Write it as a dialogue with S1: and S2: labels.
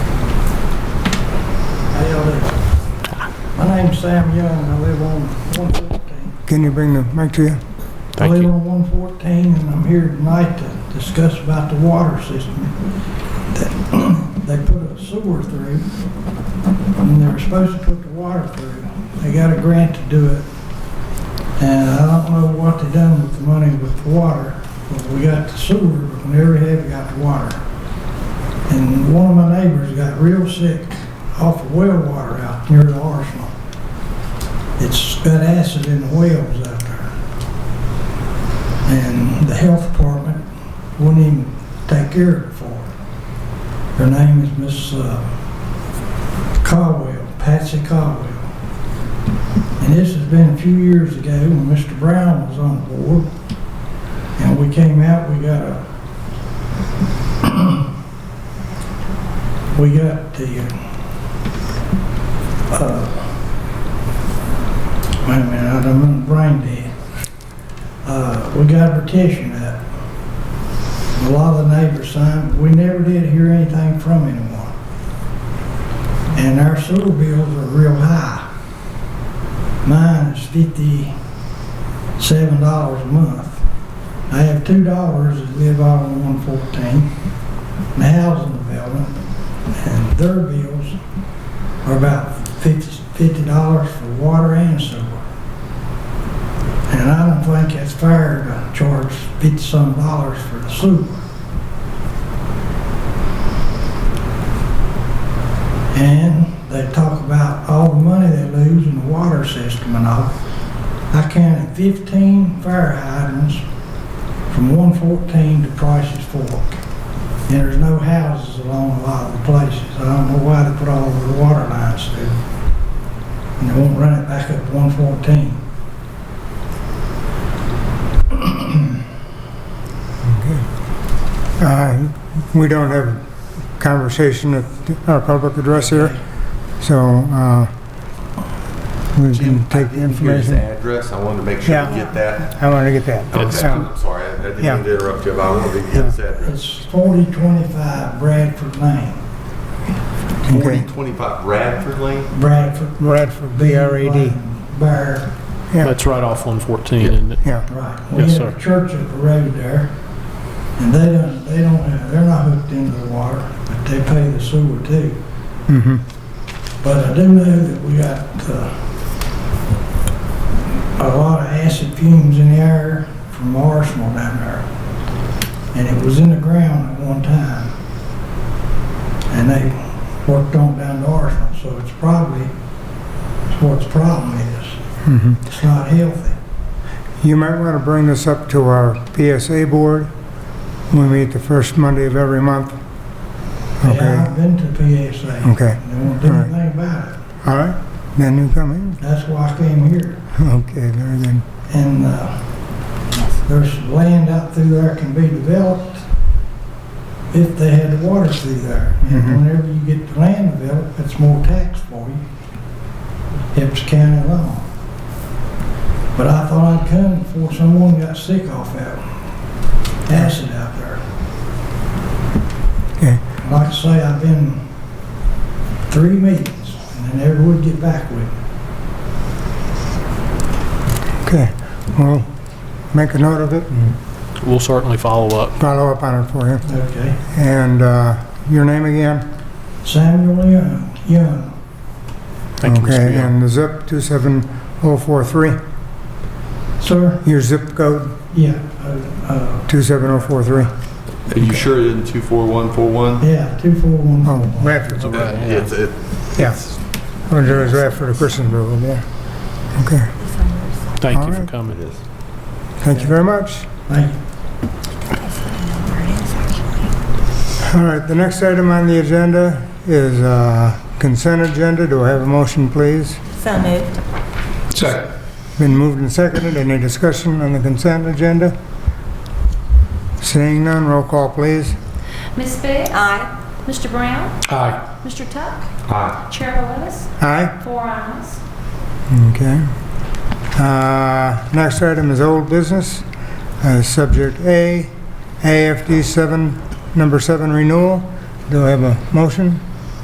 S1: name's Sam Young, I live on 114.
S2: Can you bring the mic to you?
S1: I
S3: Thank
S1: live
S3: you.
S1: on 114, and I'm here tonight to discuss about the water system. that They put a sewer through, and they were supposed to put the water through. They got a grant to do it, and I don't know what they done with the money with the water, but we got the sewer, but we never have got the water. And one of my neighbors got real sick off of well water out near the arsenal. It's got acid in the wells out there. And the health department wouldn't even take care of it for her. Her name is Miss uh, Caldwell, Patsy Caldwell. And this has been a few years ago when Mr. Brown was on the board. And we came out, we got a, we got the, uh, wait a minute, I'm brain dead uh, we got a petition up. A lot of the neighbors signed, but we never did hear anything from anyone. And our sewer bills are real high. Mine is fifty-seven dollars a month. I have two daughters that live out on one fourteen, in the housing development, and their bills are about fifty dollars for water and sewer. And I don't think it's fair to charge fifty-some dollars for the sewer. And they talk about all the money they lose in the water system and all. I counted fifteen fire hydrants from one fourteen to Price's Fork. And there's no houses along a lot of the places. I don't know why they put all the water lines through. And they won't run it back up to one fourteen.
S2: Uh, We don't have a conversation at our public address here, so uh, we can take the
S4: Here's
S2: information.
S4: the address, I wanted to make sure
S2: Yeah.
S4: to get that.
S2: I want to get that.
S4: Okay,
S2: So,
S4: I'm sorry, I I didn't
S2: Yeah.
S4: mean to interrupt you, but I wanted to get this address.
S1: It's forty twenty-five Bradford Lane,
S2: Okay.
S4: 4025 Radford Lane?
S1: Bradford.
S2: Bradford,
S1: B
S2: B-R-A-D.
S1: Lane, Bar,
S2: Yeah,
S3: That's right off 114, isn't it?
S2: yeah.
S1: right. We
S3: Yes,
S1: have
S3: sir.
S1: a church up the road there, and they don't, they don't, have- they're not hooked into the water, but they pay the sewer too.
S2: mhm.
S1: But I do know that we got uh, a lot of acid fumes in the air from Arsenal down there. And it was in the ground at one time. And they worked on down to Arsenal, so it's probably, it's what the problem is.
S2: mhm.
S1: It's not healthy.
S2: You might want to bring this up to our PSA board. We meet the first Monday of every month.
S1: And
S2: Okay,
S1: I've been to PSA.
S2: okay.
S1: and They won't do
S2: Alright.
S1: anything about it.
S2: All right, then you come in.
S1: That's why I came here.
S2: Okay, very good.
S1: And uh, there's land out through there can be developed if they had the water through there.
S2: Mhm.
S1: And whenever you get the land developed, it's more tax for you. Hips County law. But I thought I'd come before someone got sick off that acid out there.
S2: Okay.
S1: Like I say, I've been three meetings and they never would get back with me.
S2: Okay, well, make a note of it and
S3: We'll certainly follow up.
S2: follow up on it for you.
S1: Okay.
S2: And uh, your name again?
S1: Samuel Young, Young,
S3: Thank you, Mr.
S2: Okay,
S3: Young.
S2: and the zip 27043,
S1: sir.
S2: your zip code
S1: Yeah, uh,
S2: 27043.
S4: Are you sure it isn't 24141?
S1: uh, yeah, two four one
S2: Oh,
S1: four.
S2: Radford,
S3: Okay.
S4: Uh,
S3: yeah.
S4: It's, it-
S2: yeah. Well, There is Radford of Christiansville, yeah. Okay,
S3: Thank you
S2: all
S3: for
S2: right.
S4: it
S3: coming.
S4: is.
S2: thank you very much.
S1: Thank you.
S2: All right, the next item on the agenda is uh, consent agenda. Do I have a motion, please?
S5: So moved.
S2: Been moved and seconded. Any discussion on the consent agenda? Seeing none, roll call, please.
S6: Miss Biggs?
S5: Aye.
S6: Mr. Brown?
S3: Aye.
S6: Mr. Tuck?
S4: Aye.
S6: Chair Lewis?
S2: Aye?
S6: Four ayes.
S2: Okay. Uh, Next item is old business. Uh, Subject A, AFD 7, number 7 renewal. Do I have a motion?